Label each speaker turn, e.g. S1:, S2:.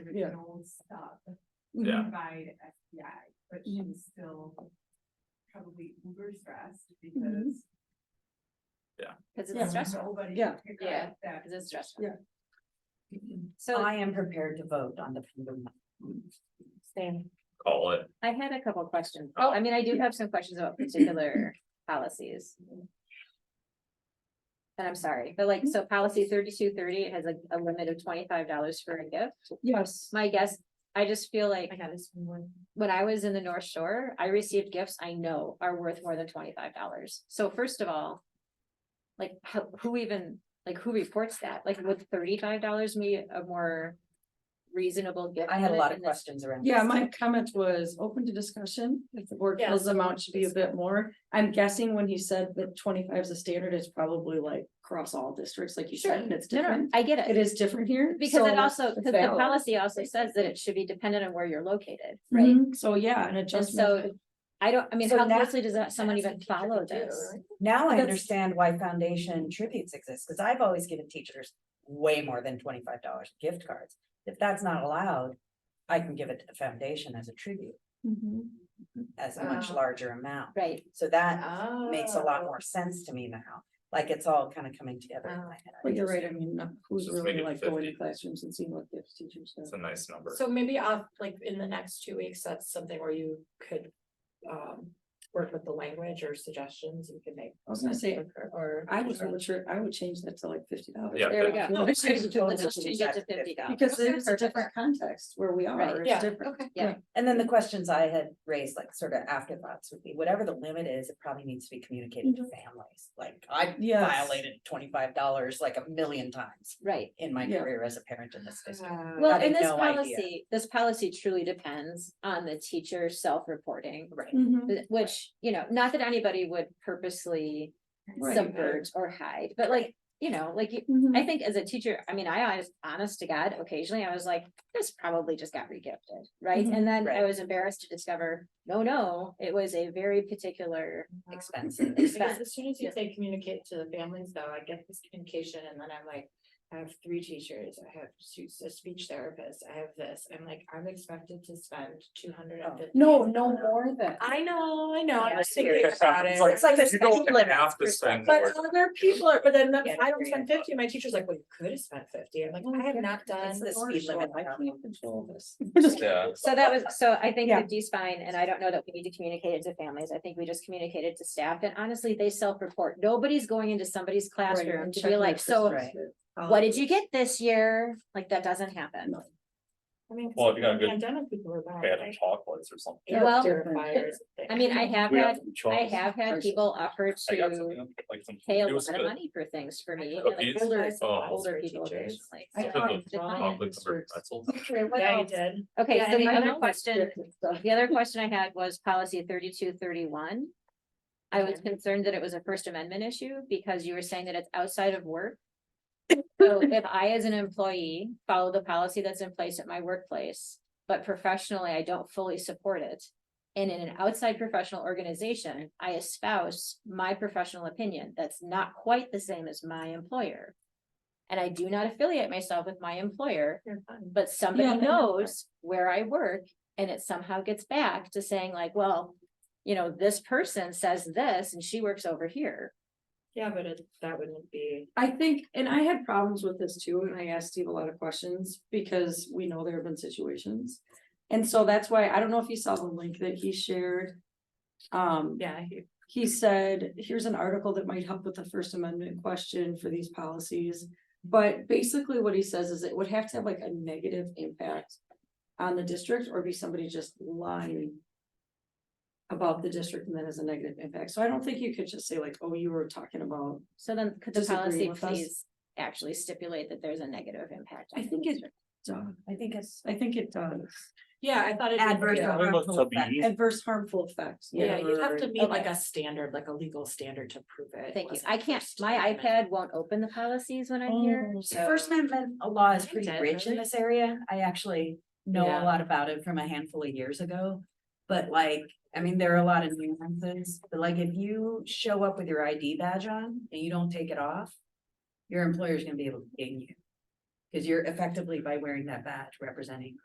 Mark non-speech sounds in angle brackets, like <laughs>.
S1: original stuff.
S2: Yeah.
S1: Provide SBI, but
S3: Mm-hmm.
S1: she was still probably uber stressed because.
S4: Cause
S3: Mm-hmm. Yeah.
S4: it's stressful,
S1: Nobody
S3: Yeah.
S1: could pick
S4: Yeah.
S1: up that.
S4: cause it's stressful. So
S3: I am prepared to vote on the. freedom.
S4: same.
S2: call it.
S4: I had a couple questions. Oh, I mean, I do have some questions about
S5: <clears throat>
S4: particular policies. And I'm sorry, but like, so policy thirty-two thirty, it has like a limit of twenty-five dollars for a gift.
S3: Yes,
S4: My guess, I just feel like
S5: got this from one.
S4: when I was in the North Shore, I received gifts I know are worth more than twenty-five dollars. So first of all. Like, how, who even, like, who reports that? Like, would thirty-five dollars be a more reasonable gift?
S5: I had a
S4: limit
S5: lot of
S4: in this-
S5: questions around.
S3: yeah,
S5: this.
S3: my comment was open to discussion, if the board feels the amount should be a bit more. I'm guessing when he said that twenty-five is a standard, it's probably like across all districts, like you
S4: Sure,
S3: said, and it's different.
S4: I get
S3: It
S4: it,
S3: is different here.
S4: because it
S3: so
S4: also, because the
S3: valid.
S4: policy also says that it should be dependent on where you're located, right?
S3: Mhm, So, yeah, an
S4: And
S3: adjustment.
S4: so, I don't, I mean,
S5: Mm-hmm. So
S4: how
S5: that-
S4: closely does that, someone
S5: that's
S4: even
S5: what teacher
S4: follow
S5: could do,
S4: this?
S5: right? Now I
S3: That's-
S5: understand why foundation tributes exist, because I've always given teachers way more than twenty-five dollars gift cards. If that's not allowed, I can give it to the foundation as a tribute,
S4: Mm-hmm.
S3: Mhm.
S5: as a much
S1: Ah.
S5: larger amount.
S4: Right,
S5: So that
S1: Oh.
S5: makes a lot more sense to me now, like it's all kind of coming together in my head.
S3: But you're right, I mean, uh, who's
S2: Just
S3: really
S2: make it
S3: like going to
S2: 50.
S3: classrooms and seeing what gifts teachers
S2: It's
S3: have.
S2: a nice number.
S6: So maybe off, like, in the next two weeks, that's something where you could, um, work with the language or suggestions you can make.
S3: I was gonna say,
S6: Or.
S3: I would, I would sure, I would change that to like fifty dollars.
S2: Yeah,
S4: there we go.
S5: <laughs>
S3: No,
S4: <laughs> Let's
S3: it's totally
S4: just change it to fifty dollars.
S3: Because it's a
S4: Perfect.
S3: different context where we
S4: Right.
S3: are,
S6: Yeah,
S3: it's different.
S6: okay.
S4: Yeah.
S5: And then the questions I had raised, like sort of afterthoughts would be, whatever the limit is, it probably needs to be communicated to families. Like I
S3: Yes.
S5: violated twenty-five dollars like a million times
S4: Right,
S5: in my
S3: Yeah.
S5: career as a parent in this district.
S1: Uh,
S4: Well,
S5: had
S4: and this
S5: no idea.
S4: policy, this policy truly depends on the teacher self-reporting,
S5: Right.
S3: Mhm.
S4: th- which, you know, not that anybody would purposely
S3: Right.
S4: subvert or hide, but like, you know, like, you-
S3: Mhm.
S4: I think as a teacher, I mean, I was honest to God, occasionally I was like, this probably just got regifted, right?
S3: Mhm.
S4: And then I
S5: Right.
S4: was embarrassed to discover, no, no, it was a very particular
S5: Expensive. <laughs>
S6: Because
S4: expense.
S6: as soon as you
S4: Yeah.
S6: say communicate to the families, though, I get this communication and then I'm like, I have three teachers, I have two- a speech therapist, I have this, I'm like, I'm expected to spend two hundred and fifty.
S3: No, no more than.
S6: I know, I know, I'm
S4: Yeah.
S6: just thinking about it.
S2: It's like,
S5: It's like a
S2: You don't
S5: special limit
S2: have to
S5: for
S2: spend more.
S6: But other people are, but then
S5: Yeah,
S6: if I don't spend
S5: yeah.
S6: fifty, my teacher's like, well, you could have spent fifty, I'm like, I have not done.
S5: It's the
S3: Or
S5: speed limit.
S3: short, I
S5: problem.
S3: can't control this.
S5: <laughs>
S2: Yeah.
S4: So that was, so I think
S3: Yeah.
S4: the D's fine, and I don't know that we need to communicate it to families, I think we just communicate it to staff, and honestly, they self-report, nobody's going into somebody's classroom to be like, so
S5: right.
S4: what did you get this year? Like, that doesn't happen.
S3: No.
S6: I mean, 'cause
S2: Well, if you got a good
S6: Pandemic people are bad.
S2: Bad on chocolates or something.
S6: Air
S4: Well,
S6: <laughs> purifiers,
S4: I mean, I have
S2: We
S4: had,
S2: some
S4: I
S2: chocolates.
S4: have had
S3: Ours-
S4: people offer
S2: I got
S4: to
S2: some, like some.
S4: pay a
S2: it
S4: lot
S2: was
S4: of
S2: good.
S4: money for things for me,
S2: I
S4: and,
S2: thought
S4: like
S2: these-
S4: older,
S6: oh,
S4: older
S6: for
S4: people.
S6: teachers.
S4: occasionally,
S3: I
S4: so
S2: thought
S4: it's
S2: it
S4: fine.
S2: Chocolate covered pretzels.
S3: Okay, what
S6: Yeah, you
S3: else?
S6: did.
S4: Okay,
S6: Yeah,
S4: so
S6: and
S4: the
S6: I
S4: other
S6: know
S4: question, the other question I had was policy thirty-two thirty-one. I was
S6: Okay.
S4: concerned that it was a First Amendment issue because you were saying that it's outside of <laughs> work. So if I, as an employee, follow the policy that's in place at my workplace, but professionally, I don't fully support it. And in an outside professional organization, I espouse my professional opinion. That's not quite the same as my employer. And I do not affiliate myself with my employer,
S6: You're fine.
S4: but
S3: Yeah,
S4: somebody
S3: I know.
S4: knows where I work and it somehow gets back to saying like, well, you know, this person says this and she works over here.
S6: Yeah, but it, that wouldn't be.
S3: I think, and I had problems with this too, and I asked Steve a lot of questions because we know there have been situations. And so that's why, I don't know if you saw the link that he shared. Um,
S6: Yeah.
S3: he said, here's an article that might help with the First Amendment question for these policies. But basically what he says is it would have to have like a negative impact on the district or be somebody just lying. About the district and that has a negative impact. So I don't think you could just say like, oh, you were talking about,
S4: So then could the
S3: Disagree
S4: policy
S3: with us?
S4: please actually stipulate that there's a negative impact?
S3: I
S4: on the
S3: think it-
S4: district?
S3: Duh,
S5: I think it's
S3: I think it does.
S6: Yeah, I thought. it'd be-
S5: adverse. or
S6: Yeah.
S2: I think it was
S5: harmful effect.
S2: WE.
S3: Adverse harmful effects.
S6: Yeah, you'd have to meet like
S4: Okay.
S6: a standard, like a legal standard to prove it.
S4: Thank you.
S6: wasn't
S4: I can't,
S6: First
S4: my
S6: Amendment.
S4: iPad won't open the policies when I'm here.
S3: Oh.
S4: So
S5: First Amendment law is
S6: I
S5: pretty
S6: did,
S5: rich in
S6: really.
S5: this area. I actually know a
S6: Yeah.
S5: lot about it from a handful of years ago. But like, I mean, there are a lot of nuances, but like if you show up with your ID badge on and you don't take it off, your employer's gonna be able to ding you. Cause you're effectively by wearing that badge representing